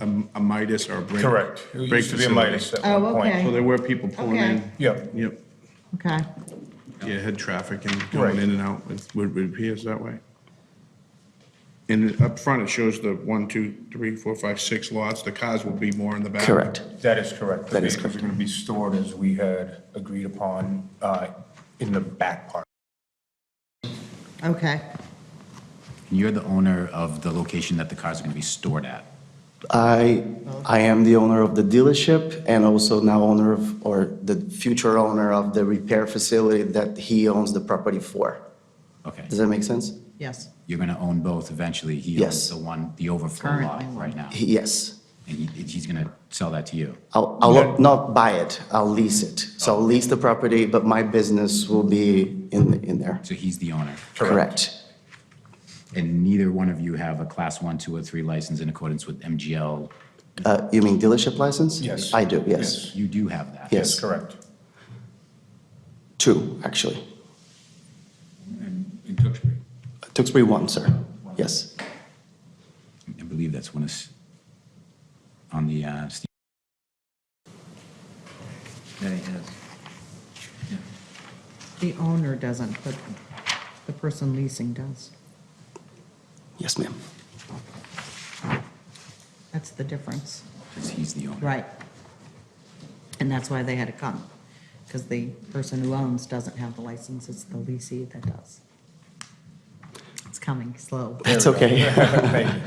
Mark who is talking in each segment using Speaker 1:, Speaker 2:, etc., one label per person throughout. Speaker 1: a a Midas or a break.
Speaker 2: Correct. It
Speaker 1: break
Speaker 2: used to be a
Speaker 1: facility.
Speaker 2: Midas at
Speaker 3: Oh,
Speaker 2: one
Speaker 1: So
Speaker 2: point.
Speaker 3: okay.
Speaker 1: there were people pulling in.
Speaker 3: Okay.
Speaker 2: Yep.
Speaker 1: Yep.
Speaker 3: Okay.
Speaker 1: Yeah, had traffic and
Speaker 2: Right.
Speaker 1: going in and out, it would it appears that way. And up front, it shows the one, two, three, four, five, six lots, the cars will be more in the back.
Speaker 4: Correct.
Speaker 2: That is correct.
Speaker 4: That is
Speaker 2: The vehicles are going to be stored as we had agreed upon uh, in the back part.
Speaker 3: Okay.
Speaker 5: You're the owner of the location that the cars are going to be stored at.
Speaker 4: I, I am the owner of the dealership and also now owner of, or the future owner of the repair facility that he owns the property for.
Speaker 5: Okay.
Speaker 4: Does that make sense?
Speaker 3: Yes.
Speaker 5: You're going to own both eventually. He
Speaker 4: Yes.
Speaker 5: owns the one, the overflow
Speaker 3: Currently.
Speaker 5: lot right now.
Speaker 4: He- Yes.
Speaker 5: And he- he's going to sell that to you.
Speaker 4: I'll, I'll not buy it, I'll lease it. So I'll lease the property, but my business will be in, in there.
Speaker 5: So he's the owner.
Speaker 4: Correct.
Speaker 5: And neither one of you have a class one, two, or three license in accordance with MGL.
Speaker 4: Uh, you mean dealership license?
Speaker 2: Yes.
Speaker 4: I do, yes.
Speaker 5: You do have that.
Speaker 4: Yes.
Speaker 2: That's correct.
Speaker 4: Two, actually.
Speaker 6: in Tewksbury.
Speaker 4: Tewksbury one, sir. Yes.
Speaker 5: I believe that's when it's on the, uh, Steve-
Speaker 6: Yeah, he has.
Speaker 3: The owner doesn't, but the person leasing does.
Speaker 4: Yes, ma'am.
Speaker 3: That's the difference.
Speaker 5: because he's the owner.
Speaker 3: Right. And that's why they had to come, because the person who owns doesn't have the license, it's the leasee that does. It's coming slow.
Speaker 4: That's okay.
Speaker 2: Thank you.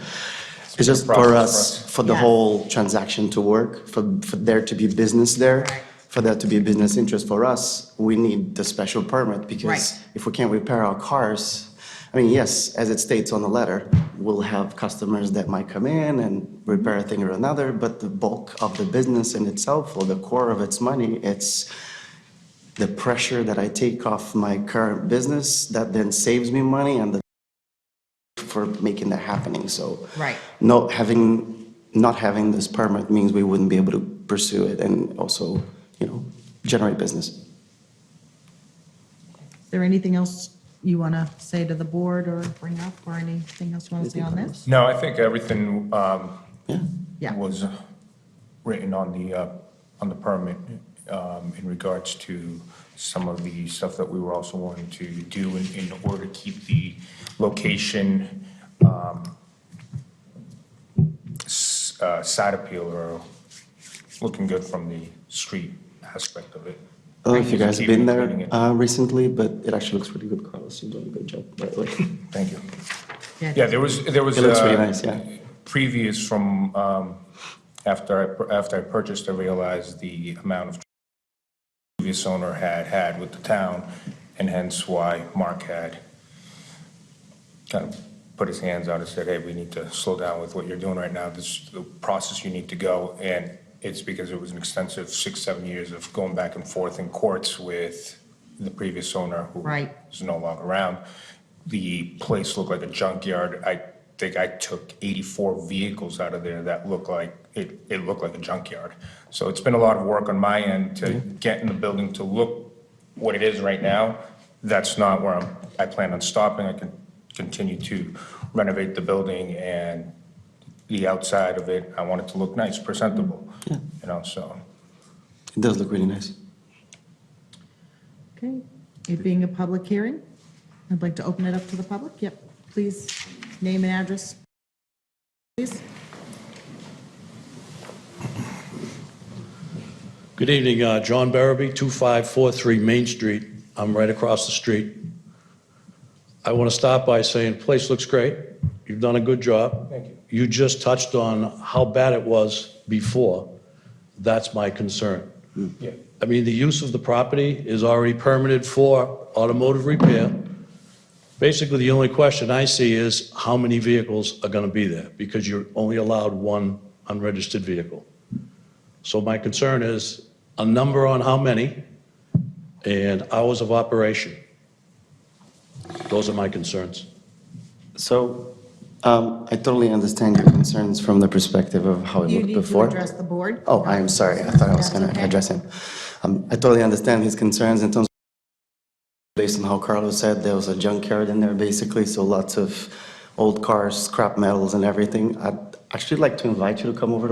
Speaker 4: It's just for
Speaker 2: Process,
Speaker 4: us,
Speaker 2: process.
Speaker 4: for the
Speaker 3: Yeah.
Speaker 4: whole transaction to work, for, for there to be business there,
Speaker 3: Correct.
Speaker 4: for there to be business interest for us, we need the special permit because
Speaker 3: Right.
Speaker 4: if we can't repair our cars, I mean, yes, as it states on the letter, we'll have customers that might come in and repair a thing or another, but the bulk of the business in itself or the core of its money, it's the pressure that I take off my current business that then saves me money and the for making that happening, so.
Speaker 3: Right.
Speaker 4: Not having, not having this permit means we wouldn't be able to pursue it and also, you know, generate business.
Speaker 3: Is there anything else you want to say to the board or bring up, or anything else you want to say on this?
Speaker 2: No, I think everything um,
Speaker 4: Yeah.
Speaker 3: Yeah.
Speaker 2: was uh, written on the, uh, on the permit um, in regards to some of the stuff that we were also wanting to do in, in order to keep the location um, s- uh, side appeal or looking good from the street aspect of it.
Speaker 4: I don't know if you guys have
Speaker 2: Keeping
Speaker 4: been there
Speaker 2: it.
Speaker 4: uh, recently, but it actually looks pretty good, Carlos. You're doing a good job, by the way.
Speaker 2: Thank you. Yeah,
Speaker 3: Yeah.
Speaker 2: there was, there was.
Speaker 4: It looks really
Speaker 2: uh,
Speaker 4: nice, yeah.
Speaker 2: Previous from, um, after I, pur- after I purchased, I realized the amount of previous owner had had with the town, and hence why Mark had kind of put his hands out and said, hey, we need to slow down with what you're doing right now. This is the process you need to go. And it's because it was an extensive six, seven years of going back and forth in courts with the previous owner who
Speaker 3: Right.
Speaker 2: is no longer around. The place looked like a junkyard. I think I took 84 vehicles out of there that looked like, it, it looked like a junkyard. So it's been a lot of work on my end to get in the building to look what it is right now. That's not where I'm, I plan on stopping. I can continue to renovate the building and the outside of it. I want it to look nice, presentable, you know, so.
Speaker 4: It does look really nice.
Speaker 3: Okay, it being a public hearing, I'd like to open it up to the public. Yep, please, name and address, please.
Speaker 7: Good evening, uh, John Barrowby, 2543 Main Street. I'm right across the street. I want to start by saying, place looks great. You've done a good job. Thank you. You just touched on how bad it was before. That's my concern.
Speaker 2: Yeah.
Speaker 7: I mean, the use of the property is already permitted for automotive repair. Basically, the only question I see is how many vehicles are going to be there? Because you're only allowed one unregistered vehicle. So my concern is a number on how many and hours of operation. Those are my concerns.
Speaker 4: So um, I totally understand your concerns from the perspective of how it
Speaker 3: You
Speaker 4: looked
Speaker 3: need to
Speaker 4: before.
Speaker 3: address the board.
Speaker 4: Oh, I am sorry. I thought I
Speaker 3: That's
Speaker 4: was going to
Speaker 3: okay.
Speaker 4: address him. Um, I totally understand his concerns in terms based on how Carlos said, there was a junkyard in there basically, so lots of old cars, scrap metals and everything. I, actually like to invite you to come over to